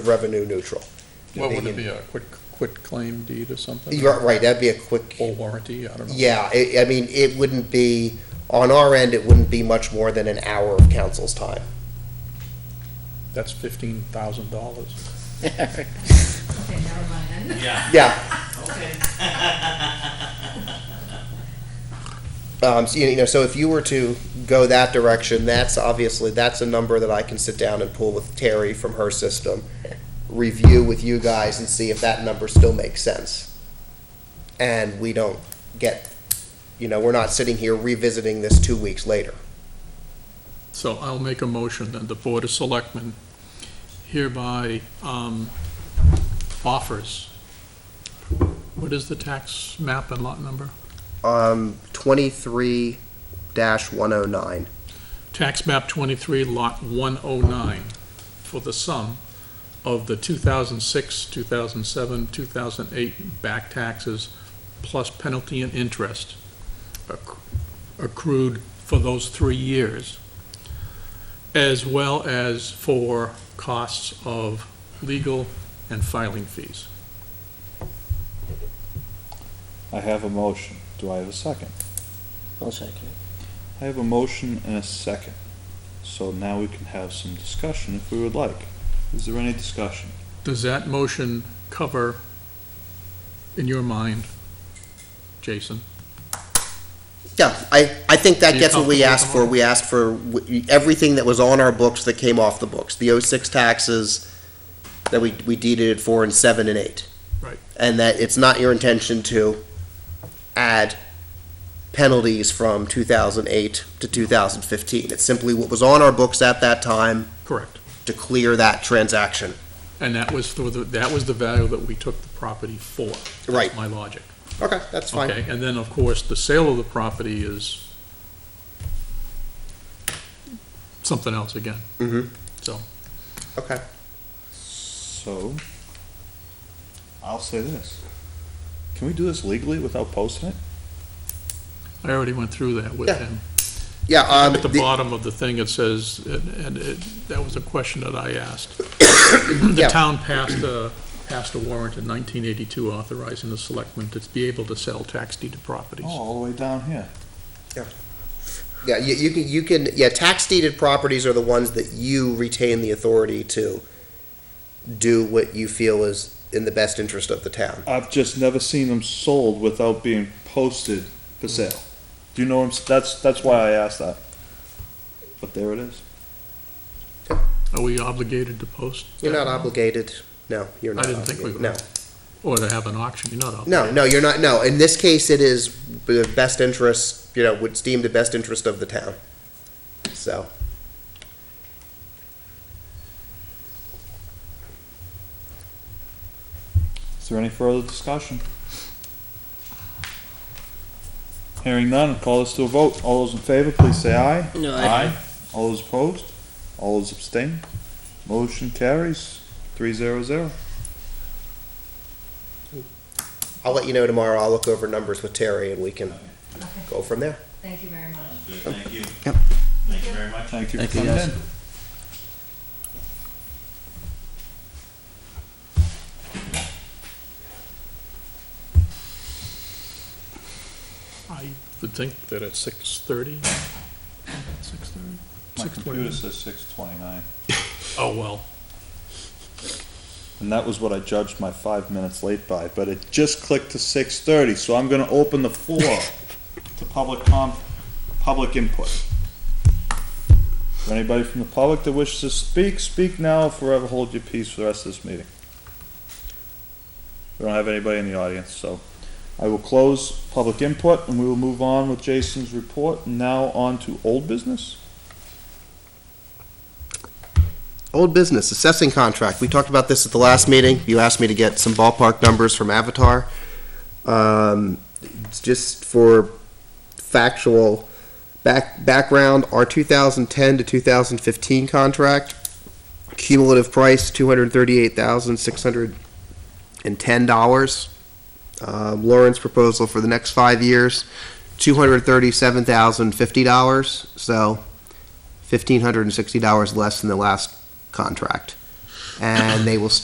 revenue neutral. What would it They be, a quit, quit claim deed or something? You're right, that'd be a quick, Or warranty, I don't know. yeah, I, I mean, it wouldn't be, on our end, it wouldn't be much more than an hour of council's time. That's fifteen thousand dollars. Okay, never mind then. Yeah, Okay. um, so, you know, so if you were to go that direction, that's obviously, that's a number that I can sit down and pull with Terry from her system, review with you guys and see if that number still makes sense. And we don't get, you know, we're not sitting here revisiting this two weeks later. So I'll make a motion that the Board of Selectmen hereby um, offers, what is the tax map and lot number? Um, twenty-three dash one oh nine. Tax map 23, lot 109, for the sum of the 2006, 2007, 2008 back taxes plus penalty and interest acc- accrued for those three years, as well as for costs of legal and filing fees. I have a motion. Do I have a second? I'll second I have a motion and a second. So now we can have some discussion if we would like. Is there any discussion? Does that motion cover, in your mind, Jason? Yeah, I, I think that Are you gets what we comfortable asked with for. that? We asked for w- everything that was on our books that came off the books, the '06 taxes that we, we deeded it for in seven and eight. Right. And that it's not your intention to add penalties from two thousand eight to two thousand fifteen. It's simply what was on our books at that time Correct. to clear that transaction. And that was for the, that was the value that we took the property for. That's Right. My logic. Okay, that's Okay, and then, of course, the sale of the property is something else again. Mm-hmm, So, okay. So, I'll say this. Can we do this legally without posting it? I already went through that with Yeah. him. Yeah, um, At the the- bottom of the thing, it says, and and it, that was a question that I asked. Yeah. The town passed a, passed a warrant in nineteen eighty-two authorizing the selectmen to be able to sell tax deeded Oh, properties. all the way down here. Yeah, you, you can, you can, yeah, tax deeded properties are the ones that you retain the authority to do what you feel is in the best interest of the town. I've just never seen them sold without being posted for sale. Do you know what I'm, s- that's, that's why I asked that. But there it is. Are we obligated to post? You're not that? obligated, no, you're I not didn't think we obligated, were. no. Or to have an auction, you're not obligated. No, no, you're not, no, in this case, it is the best interest, you know, would deem the best interest of the town, so. Is there any further discussion? Hearing none, call this to a vote. All those in favor, please say aye. it. No, I, Aye. All those opposed? All those abstain? Motion carries, three zero zero. I'll let you know tomorrow, I'll look over numbers with Terry and we can Okay, go from there. Thank you very much. Good, thank you. Yep. Thank you very much. Thank you Thank for you, coming guys. in. I would think that at six thirty, six thirty, My six computer twenty. says six twenty-nine, Oh, well, and that was what I judged my five minutes late by, but it just clicked to six thirty, so I'm gonna open the floor to public com, public input. Is there Anybody from the public that wishes to speak, speak now, or forever hold your peace for the rest of this meeting. We don't have anybody in the audience, so I will close public input and we will move on with Jason's report. Now on to old business. Old business, assessing contract. We talked about this at the last meeting. You asked me to get some ballpark numbers from Avatar. Um, it's just for factual back, background, our 2010 to 2015 contract, cumulative price $238,610. Um, Lauren's proposal for the next five years, $237,050. So $1,560 less than the last contract. and they will start